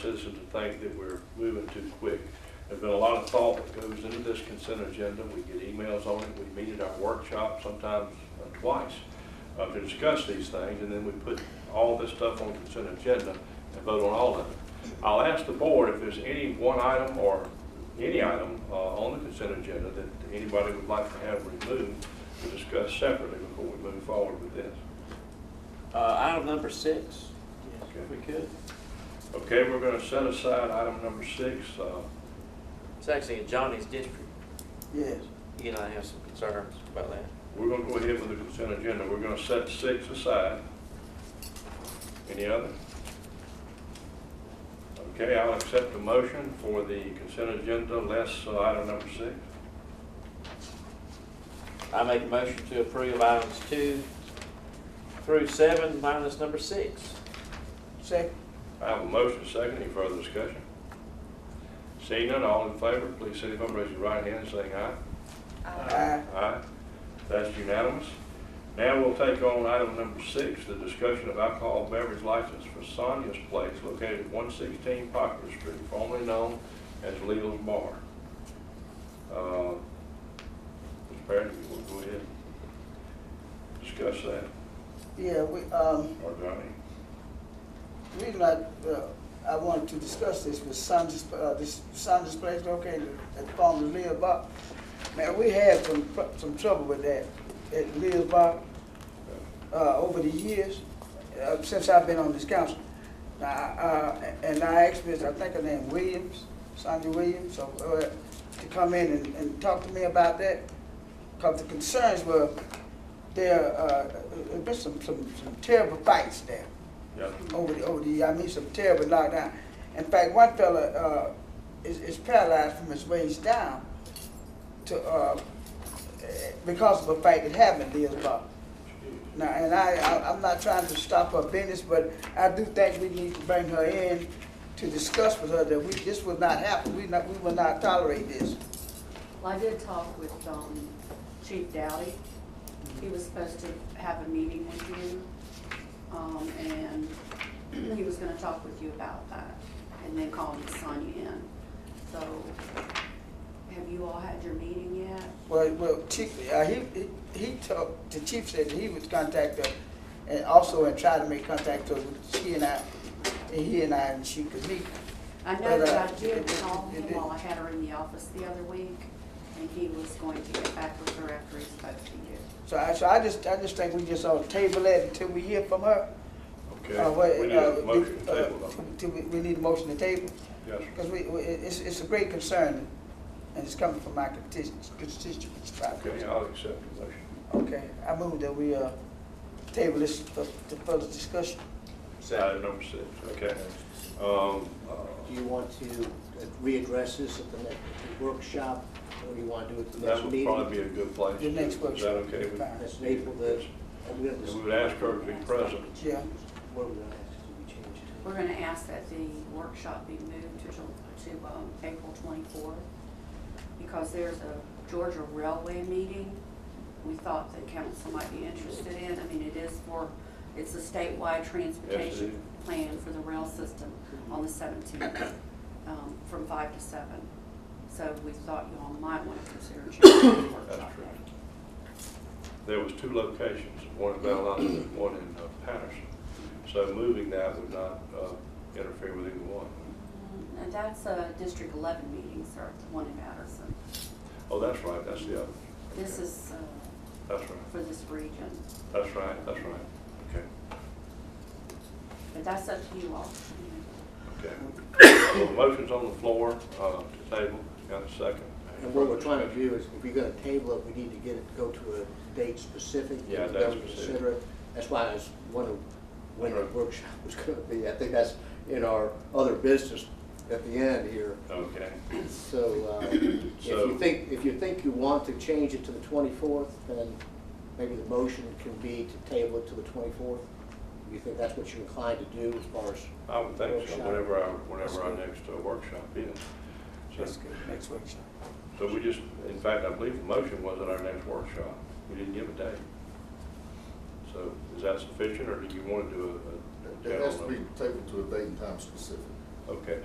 citizens to think that we're moving too quick. There's been a lot of thought that goes into this consent agenda. We get emails on it. We meet at our workshop sometimes uh, twice uh, to discuss these things, and then we put all this stuff on consent agenda and vote on all of it. I'll ask the board if there's any one item or any item uh, on the consent agenda that anybody would like to have removed to discuss separately before we move forward with this. Uh, item number six, Okay. if we could. Okay, we're going to set aside item number six. uh, It's actually in Johnny's district. Yes. He and I have some concerns about that. We're going to go ahead with the consent agenda. We're going to set six aside. Any other? Okay, I'll accept the motion for the consent agenda less uh, item number six. I make a motion to approve items two through seven minus number six. Second. I have a motion, second, any further discussion? Seeing none, all in favor, please signify by raising your right hand and saying aye. Aye. Aye. That's unanimous. Now we'll take on item number six, the discussion of alcohol beverage license for Sonia's Place located at one sixteen Poplar Street, formerly known as Leo's Bar. Uh, Mr. Parent, we'll go ahead and discuss that, Yeah, we, um, or Johnny. reason I, uh, I wanted to discuss this with Sandra's, uh, this Sandra's place located at former Leah Bar. Man, we had some, pr- some trouble with that at Leah's Bar, uh, over the years, uh, since I've been on this council. Now, uh, and I asked Miss, I think her name Williams, Sandra Williams, so, uh, to come in and, and talk to me about that. Cause the concerns were, there, uh, there's been some, some, some terrible fights there Yeah, over the, over the, I mean, some terrible knockdown. In fact, one fella, uh, is, is paralyzed from his waist down to, uh, eh, because of a fight that happened in Lee's Bar. Now, and I, I, I'm not trying to stop her business, but I do think we need to bring her in to discuss with her that we, this will not happen, we not, we will not tolerate this. Well, I did talk with um, Chief Dowdy. He was supposed to have a meeting with you, um, and he was gonna talk with you about that, and then call Miss Sonia in. So, have you all had your meeting yet? Well, well, chief, uh, he, he- he talked, the chief said that he would contact her and also and try to make contact with her, she and I, and he and I, and she could meet. I know But, that uh, I did it- it- call him it- it- while I had her in the office the other week, and he was going to get back with her after he spoke to you. So I, so I just, I just think we just ought to table it until we hear from her. Uh, what, Okay, we need a uh, motion to uh, table though. till we, we need a motion to table, Yes, sir. because we, we- it's, it's a great concern, and it's coming from my constituents, constituents. probably. okay, I'll accept the motion. Okay, I move that we, uh, table this for, to further discussion. Item number six, okay. Um, Do uh, you want to readdress this at the next workshop, or do you want to do it at the That next would probably meeting? be a good place. The next Is that workshop. okay? with- Fine. That's in April, the, we have this, We would ask her to be present. Yeah. what are we gonna ask, to be changed to? We're gonna ask that the workshop be moved to, Ju- to, um, April twenty-fourth, because there's a Georgia Railway meeting we thought the council might be interested in. I mean, it is for, it's a statewide transportation plan for the rail system on the seventeenth, um, from five to seven. So we thought you all might wanna consider changing the workshop. That's true. There was two locations, one in Valdosta and one in uh, Patterson. So moving that would not uh, interfere with either one. Mm, And that's a District eleven meeting, sir, the one in Patterson. Oh, that's right, that's the other. This Okay. is, uh, That's right, for this region. that's right, that's right. Okay, But that's up to you all. okay. Well, the motion's on the floor uh, to table. Got a second? And what we're trying to do is, if you're gonna table it, we need to get it, go to a date specific. that Yeah, we date don't specific. consider it. That's why I was wondering when the Right. workshop was gonna be, I think that's in our other business at the end here. Okay, So, uh, if So- you think, if you think you want to change it to the 24th, then maybe the motion can be to table it to the 24th? You think that's what you're inclined to do as far as? I would think so, Workshop. whenever our, whenever our next uh, workshop is. That's So good, next workshop. so we just, in fact, I believe the motion was at our next workshop. We didn't give a date. So is that sufficient, or do you want to do a- a? It has to general- be tabled to a date and time specific. Okay,